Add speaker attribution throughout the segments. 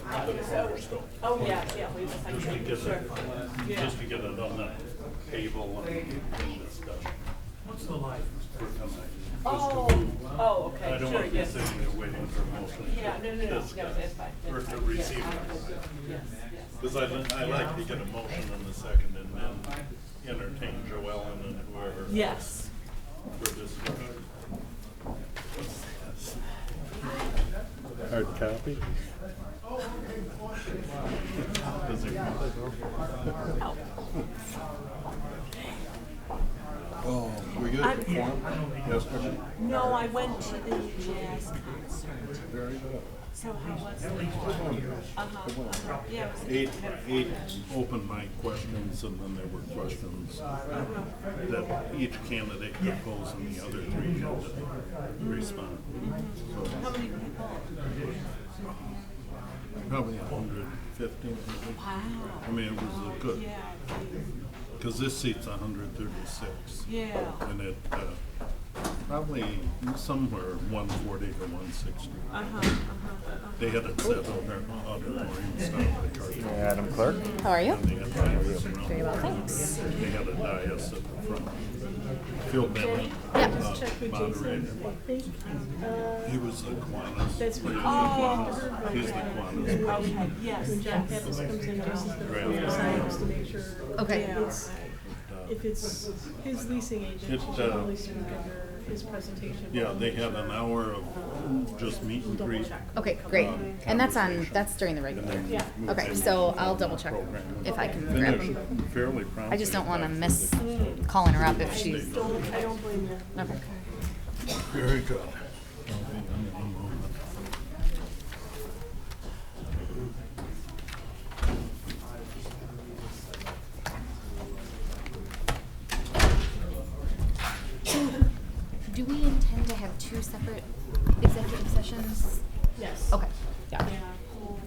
Speaker 1: put a broader scope.
Speaker 2: Oh, yeah, yeah, wait a second.
Speaker 1: Just to get
Speaker 2: Sure.
Speaker 1: it, just to get it on the table and and this stuff.
Speaker 3: What's the life?
Speaker 1: We're coming.
Speaker 2: Oh, oh, okay,
Speaker 1: I don't
Speaker 2: sure,
Speaker 1: want to be
Speaker 2: yes.
Speaker 1: sitting there waiting for most of
Speaker 2: Yeah, no, no, no, no,
Speaker 1: this
Speaker 2: that's fine,
Speaker 1: stuff.
Speaker 2: that's fine.
Speaker 1: Or to
Speaker 2: Yes,
Speaker 1: receive
Speaker 2: I'm
Speaker 1: it.
Speaker 2: good. Yes, yes.
Speaker 1: Because I, li- I like to get a motion in the second and then entertain Joellen and whoever.
Speaker 2: Yes.
Speaker 1: For discussion. What's this?
Speaker 4: Hard copy?
Speaker 1: Does it
Speaker 2: Oh,
Speaker 4: Oh, we good?
Speaker 2: I'm-
Speaker 4: Form? Yes, ma'am.
Speaker 2: No, I went to the jazz concert.
Speaker 4: Very good.
Speaker 2: So how was it? Uh-huh, uh-huh, yeah, it was.
Speaker 1: Eight, eight open mic questions, and then there were questions that each candidate could pose, and the other three had to respond.
Speaker 2: How many people?
Speaker 1: Probably a hundred fifteen.
Speaker 2: Wow.
Speaker 1: I mean, it was a good,
Speaker 2: Yeah,
Speaker 1: because this seat's a hundred thirty-six,
Speaker 2: yeah,
Speaker 1: and it, uh, probably somewhere one forty to one sixty.
Speaker 2: uh-huh, uh-huh.
Speaker 1: They had it set on their auditorium style, the cartoon.
Speaker 4: Adam Clark?
Speaker 5: How are you?
Speaker 1: They had diets around
Speaker 5: Very well,
Speaker 1: the room.
Speaker 5: thanks.
Speaker 1: They had a dais at the front. Phil Bennett, uh, moderator.
Speaker 6: uh,
Speaker 1: He was the Kiwanis. That's what.
Speaker 2: Oh.
Speaker 1: He's the Kiwanis.
Speaker 2: Okay, yes, yes.
Speaker 6: This comes in, this is the
Speaker 1: Right.
Speaker 6: signs to make sure.
Speaker 5: Okay.
Speaker 6: if it's- If it's his leasing agent,
Speaker 1: It,
Speaker 6: she'll
Speaker 1: uh,
Speaker 6: probably send together his presentation.
Speaker 1: Yeah, they had an hour of just meet and greet.
Speaker 5: Okay, great. And that's on, that's during the
Speaker 1: and
Speaker 5: regular.
Speaker 1: then moved
Speaker 5: Okay,
Speaker 1: into
Speaker 5: so
Speaker 1: the
Speaker 5: I'll double check
Speaker 1: program.
Speaker 5: if I can
Speaker 1: Then
Speaker 5: grab
Speaker 1: there's
Speaker 5: them.
Speaker 1: Fairly prompt.
Speaker 5: I just don't wanna miss calling her up if she's,
Speaker 6: Don't, I don't blame you.
Speaker 5: okay.
Speaker 1: Very good.
Speaker 5: Do we intend to have two separate executive sessions?
Speaker 6: Yes.
Speaker 5: Okay, yeah.
Speaker 6: Yeah, cool.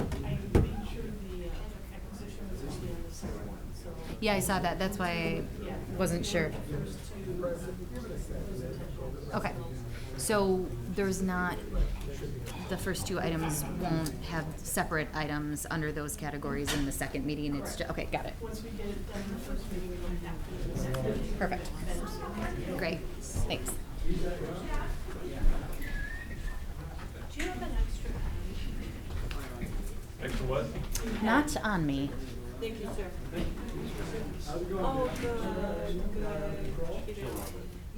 Speaker 6: I made sure the uh, acquisition was gonna be on the second one, so.
Speaker 5: Yeah, I saw that. That's why I wasn't sure. Okay. So there's not, the first two items won't have separate items under those categories in the second meeting. It's just, okay, got it.
Speaker 6: Once we get it done the first meeting, we don't have to. do the second.
Speaker 5: Perfect. Great. Thanks.
Speaker 2: Do you have an extra?
Speaker 1: Extra what?
Speaker 5: Not on me.
Speaker 2: Thank you, sir. Oh, good, good. you know.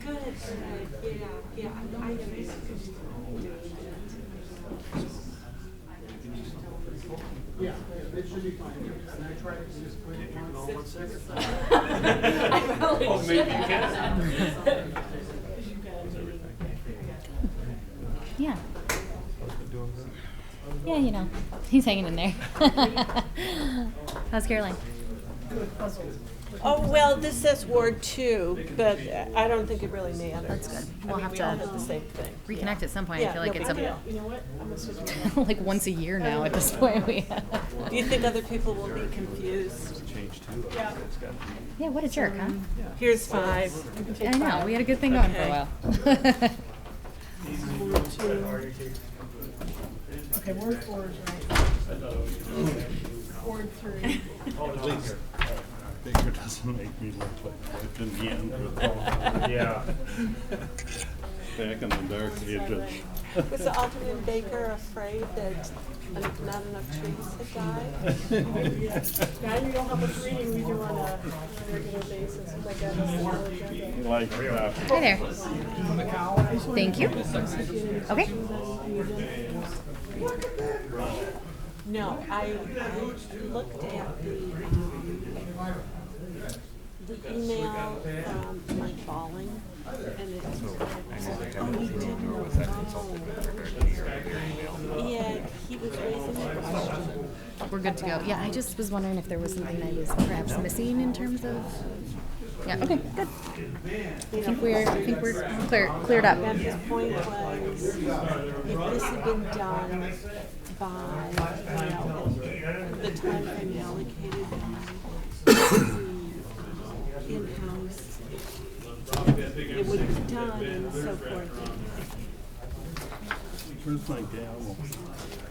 Speaker 2: Good, good, yeah, yeah, I am. I probably
Speaker 1: Oh, maybe you
Speaker 2: should.
Speaker 5: Yeah. Yeah, you know, he's hanging in there. How's Caroline?
Speaker 2: Oh, well, this says Ward Two, but uh, I don't think it really matters.
Speaker 5: That's good.
Speaker 2: I
Speaker 5: We'll
Speaker 2: mean,
Speaker 5: have
Speaker 2: we all
Speaker 5: to
Speaker 2: did the same thing.
Speaker 5: Reconnect at some point. I
Speaker 2: Yeah,
Speaker 5: feel like
Speaker 2: no
Speaker 5: it's
Speaker 2: big
Speaker 5: a,
Speaker 2: deal.
Speaker 6: You know what? I'm gonna switch my.
Speaker 5: like once a year now at this point. We
Speaker 2: Do you think other people will be confused?
Speaker 5: yeah, what a jerk, huh?
Speaker 2: Here's five.
Speaker 5: I know. We had a good thing going for a while.
Speaker 6: Okay, Ward four is right. Ward three.
Speaker 1: Please. Baker doesn't make me look like Cliff in the end with all.
Speaker 3: Yeah.
Speaker 1: Back in the dark ages.
Speaker 2: Was the Alderman Baker afraid that uh, not enough trees had died?
Speaker 6: Now you don't have much reading we do on a on a regular basis, oh my god, that's a whole agenda.
Speaker 1: Like, uh,
Speaker 5: Hi there. Thank you. Okay.
Speaker 2: No, I, I looked at the, um, the email from Mike Balling, and it was like, oh, we didn't know. Yeah, he was raising a question.
Speaker 5: We're good to go. Yeah, I just was wondering if there was something I was perhaps missing in terms of. Yeah. Okay. Good. I think we're. I think we're clear, cleared up.
Speaker 2: And his point was, if this had been done by, you know, the time frame allocated by the in-house, it would have been done and so forth.
Speaker 1: Where's my gavel?